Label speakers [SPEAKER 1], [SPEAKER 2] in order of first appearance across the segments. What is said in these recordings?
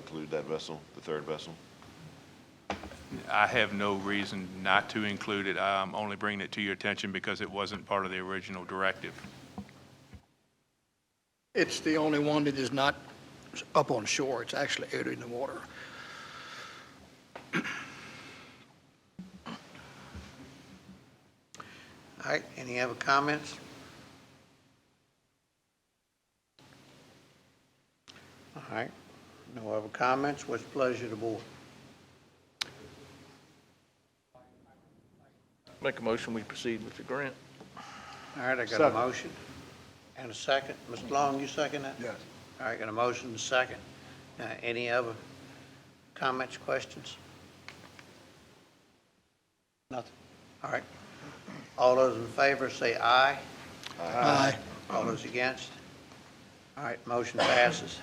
[SPEAKER 1] include that vessel, the third vessel?
[SPEAKER 2] I have no reason not to include it. I'm only bringing it to your attention because it wasn't part of the original directive.
[SPEAKER 3] It's the only one that is not up on shore, it's actually out in the water.
[SPEAKER 4] All right, any other comments? All right, no other comments, what's the pleasure of the board?
[SPEAKER 5] Make a motion, we proceed with the grant.
[SPEAKER 4] All right, I got a motion and a second. Mr. Long, you second that?
[SPEAKER 3] Yes.
[SPEAKER 4] All right, got a motion and a second. Uh, Any other comments, questions? Nothing? All right. All those in favor, say aye. Ah.
[SPEAKER 3] Aye.
[SPEAKER 4] All those against? All right, motion passes.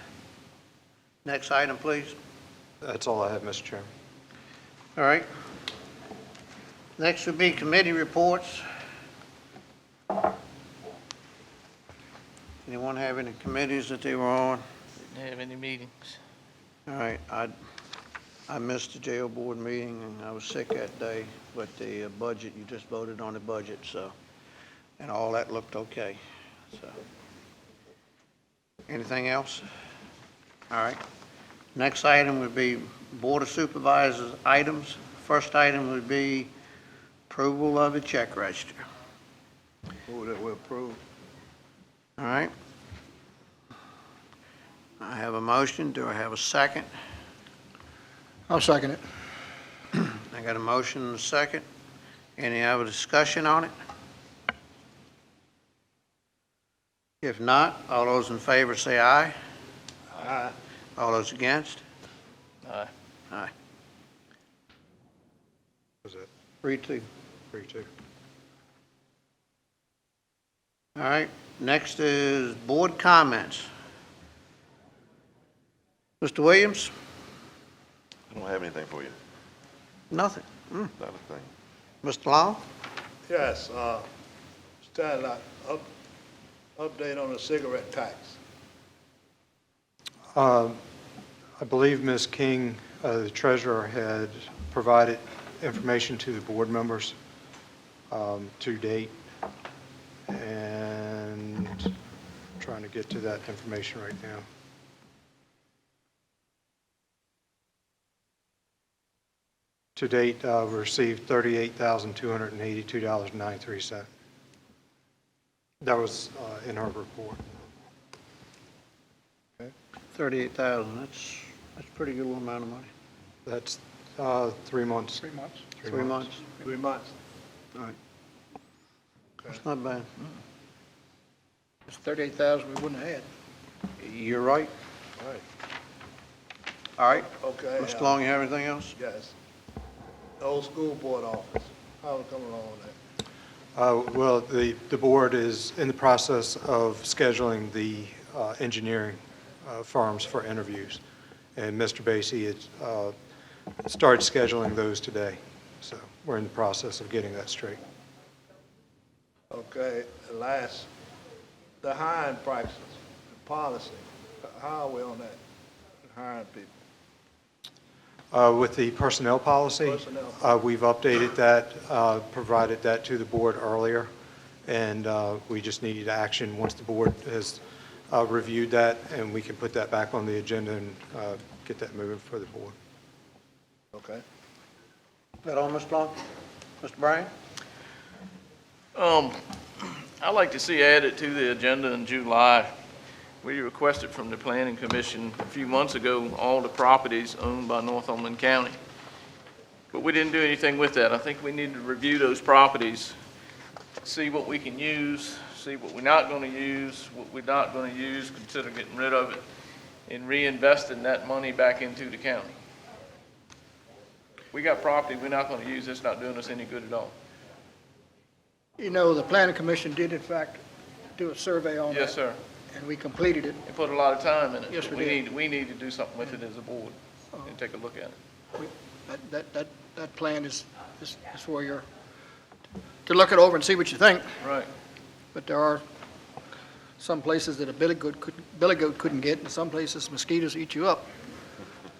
[SPEAKER 4] Next item, please.
[SPEAKER 6] That's all I have, Mr. Chairman.
[SPEAKER 4] All right. Next would be committee reports. Anyone have any committees that they were on?
[SPEAKER 5] Didn't have any meetings.
[SPEAKER 4] All right, I, I missed the jail board meeting, and I was sick that day, but the uh, budget, you just voted on the budget, so, and all that looked okay, so. Anything else? All right. Next item would be Board of Supervisors items. First item would be approval of the check register.
[SPEAKER 6] Move that we approve.
[SPEAKER 4] All right. I have a motion. Do I have a second?
[SPEAKER 3] I'll second it.
[SPEAKER 4] I got a motion and a second. Any other discussion on it? If not, all those in favor say aye. Aye. All those against?
[SPEAKER 5] Aye.
[SPEAKER 4] Aye.
[SPEAKER 6] Was it
[SPEAKER 4] Three, two.
[SPEAKER 6] three, two?
[SPEAKER 4] All right, next is board comments. Mr. Williams?
[SPEAKER 1] I don't have anything for you,
[SPEAKER 4] Nothing. Mm.
[SPEAKER 1] not a thing.
[SPEAKER 4] Mr. Long?
[SPEAKER 7] Yes, uh, Stanley, I- up, update on the cigarette tax.
[SPEAKER 6] I believe Ms. King, uh, the treasurer, had provided information to the board members um, to date, and trying to get to that information right now. To date, uh, we received $38,282.93. That was uh, in her report.
[SPEAKER 4] 38,000, that's, that's a pretty good little amount of money.
[SPEAKER 6] That's uh, three months. Three months.
[SPEAKER 4] Three months.
[SPEAKER 7] Three months.
[SPEAKER 4] All right. That's not bad.
[SPEAKER 3] It's 38,000 we wouldn't have had.
[SPEAKER 4] You're right.
[SPEAKER 7] All right.
[SPEAKER 4] All right.
[SPEAKER 7] Okay.
[SPEAKER 4] Mr.
[SPEAKER 7] uh,
[SPEAKER 4] Long, you have anything else?
[SPEAKER 7] Yes. The old school board office, how we come along with that?
[SPEAKER 6] Uh, Well, the, the board is in the process of scheduling the uh, engineering uh, firms for interviews, and Mr. Basie has uh, started scheduling those today, so we're in the process of getting that straight.
[SPEAKER 7] Okay, and last, the hiring practices, the policy, how are we on that? Hiring people,
[SPEAKER 6] Uh, With the personnel policy,
[SPEAKER 7] Personnel.
[SPEAKER 6] uh, we've updated that, uh, provided that to the board earlier, and uh, we just needed action once the board has uh, reviewed that, and we can put that back on the agenda and uh, get that moving for the board.
[SPEAKER 7] okay?
[SPEAKER 4] That all, Mr. Long? Mr. Bryan?
[SPEAKER 5] Um, I'd like to see added to the agenda in July, we requested from the planning commission a few months ago, all the properties owned by Northumberland County. But we didn't do anything with that. I think we need to review those properties, see what we can use, see what we're not going to use, what we're not going to use, consider getting rid of it, and reinvesting that money back into the county. We got property we're not going to use, it's not doing us any good at all.
[SPEAKER 3] You know, the planning commission did in fact do a survey on that.
[SPEAKER 5] Yes, sir.
[SPEAKER 3] And we completed it.
[SPEAKER 5] and put a lot of time in it.
[SPEAKER 3] Yes, we
[SPEAKER 5] We
[SPEAKER 3] did. Uh-huh.
[SPEAKER 5] need, we need to do something with it as a board and take a look at it.
[SPEAKER 3] That, that, that, that plan is, is is for your, to look it over and see what you think.
[SPEAKER 5] Right.
[SPEAKER 3] But there are some places that a billy goat couldn't, billy goat couldn't get, and some places mosquitoes eat you up.